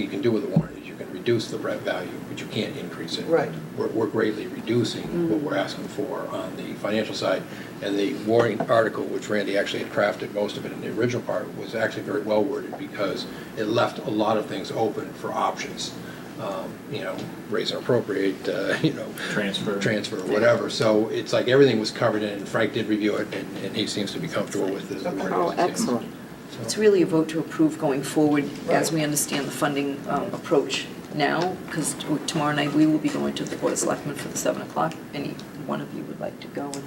you can do with a warrant is you can reduce the rent value, but you can't increase it. Right. We're, we're greatly reducing what we're asking for on the financial side. And the warrant article, which Randy actually had crafted most of it in the original part, was actually very well worded because it left a lot of things open for options. Um, You know, raise and appropriate, uh, you know. Transfer. Transfer, whatever. So it's like everything was covered in, and Frank did review it, and, and he seems to be comfortable with the. the wording. Oh, excellent. So- It's really a vote to approve going forward as Right. we understand the funding um, approach now, because tomorrow night we will be going to the Board of Selectmen for the 7 o'clock. Any one of you would like to go and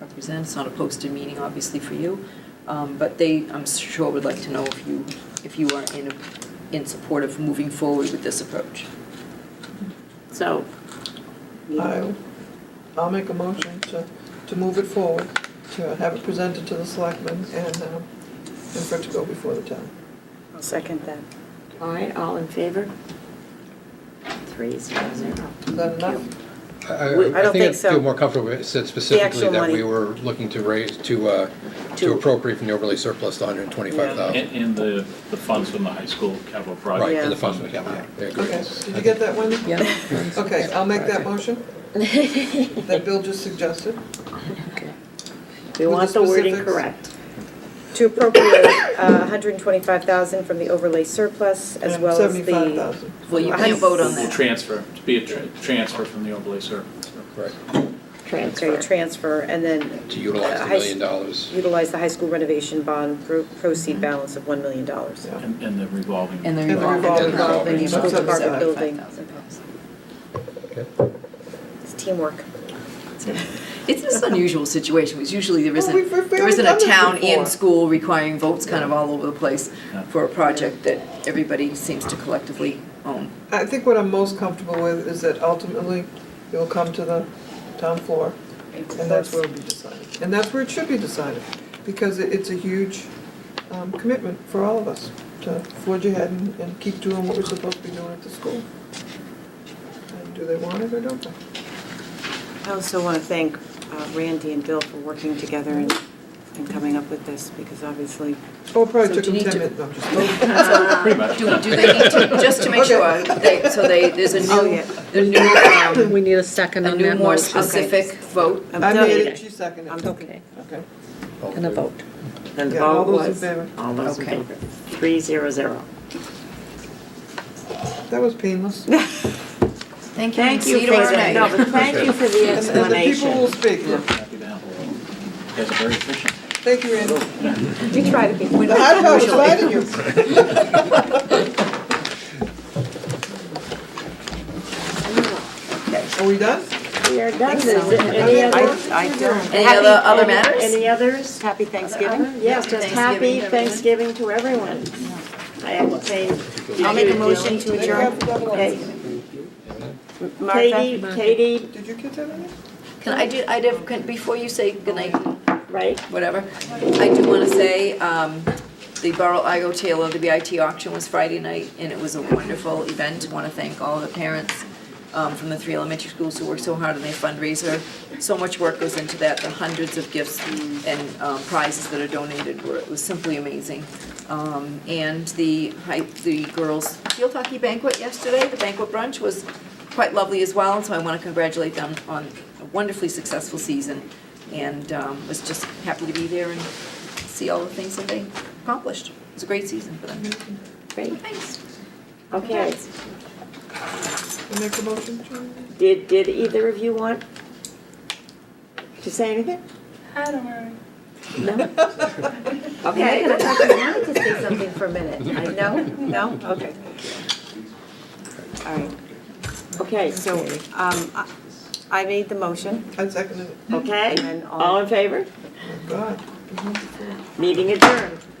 represent, it's not a posted meeting, obviously, for you. Um, But they, I'm sure, would like to know if you, if you are in, in support of moving forward with this approach. So, I, I'll make a motion to, to move it forward, to have it presented to the selectmen and, um, and for it to go before the town. I'll second that. all right, all in favor? Three, zero, zero. Is that enough? I- We- I I I don't think I'd think so. feel more comfortable if it said specifically actual that we money. were looking to raise, to, uh, to To- appropriate from the overlay surplus the 125,000. And, and the, the funds from the high school capital project. Right, Yeah. and the funds, yeah, yeah, I agree. Okay, did you get that, Wendy? Yeah. Okay, I'll make that motion that Bill just suggested. Okay. We want the wording correct. To appropriate uh, 125,000 from the overlay surplus as well as Seventy-five the. thousand. Well, you can't vote on Will that. transfer, to be a tra- transfer from the overlay surplus. Right, Okay, Transfer. transfer, and then. to utilize uh, the high s- million dollars. Utilize the high school renovation bond pro- proceed balance of $1 million. Mm-hmm. Yeah. And, and the revolving. And the And the revolving. revolving loan, in the so amount it's of about $75,000. building. It's teamwork. It's just an unusual situation, because usually there Well, we've- isn't, we've there isn't done a this town in before. school requiring votes kind of all over the place Yeah. for a project that everybody seems to collectively own. I think what I'm most comfortable with is that ultimately it will come to the town floor and that's where it'll be decided. And that's where it should be decided, because it- it's a huge um, commitment for all of us to forge ahead and and keep doing what we're supposed to be doing at the school. And do they want it or don't they? I also want to thank uh, Randy and Bill for working together and and coming up with this, because obviously Oh, it probably So took do them you 10 minutes, need no, I'm just- Pretty much. Do, do they need to, just to make sure, they, so they, there's a Oh, new, yeah. a new, um, We need a second a on new that more motion. specific vote. I'm I done. made it, she seconded I'm it. done. Okay, Okay. and a vote. And the Yeah, all vote those in was? favor. All those in Okay. favor. Three, zero, zero. That was painless. Thank you, Thank you see you for tomorrow the, no, night. but thank you for the And and the people will explanation. speak. Happy to have a little. You guys are very efficient. Thank you, Randy. We try to be. The hot dog is right in you. Are we done? We are done. Is there any other? I don't. Any other, other Happy- matters? Any others? Happy Thanksgiving. Yes, just happy Thanksgiving Thanksgiving to everyone. I entertain. I'll make a motion to Did you have adjourn. the double Okay. ones? Katie, Martha? Katie, Did you get that in? Can I do, I did, can, before you say goodnight, right? whatever. I do want to say, um, the Borough Igo Taylor, the BIT auction was Friday night, and it was a wonderful event. Want to thank all the parents um, from the three elementary schools who worked so hard on their fundraiser. So much work goes into that, the hundreds of gifts and um, prizes that are donated were, it was simply amazing. Um, And the, high- the girls' field hockey banquet yesterday, the banquet brunch was quite lovely as well, so I want to congratulate them on a wonderfully successful season. And um, was just happy to be there and see all the things that they accomplished. It was a great season for them. Great, Thanks. okay. You Make a motion, John? Did, did either of you want to say anything? I don't know. No? Okay, I Okay. thought you wanted to say something for a minute. I know, no, okay. All right, Okay, so so, um, I- I made the motion. I seconded it. okay, And then all- all in favor? God. Meeting adjourned.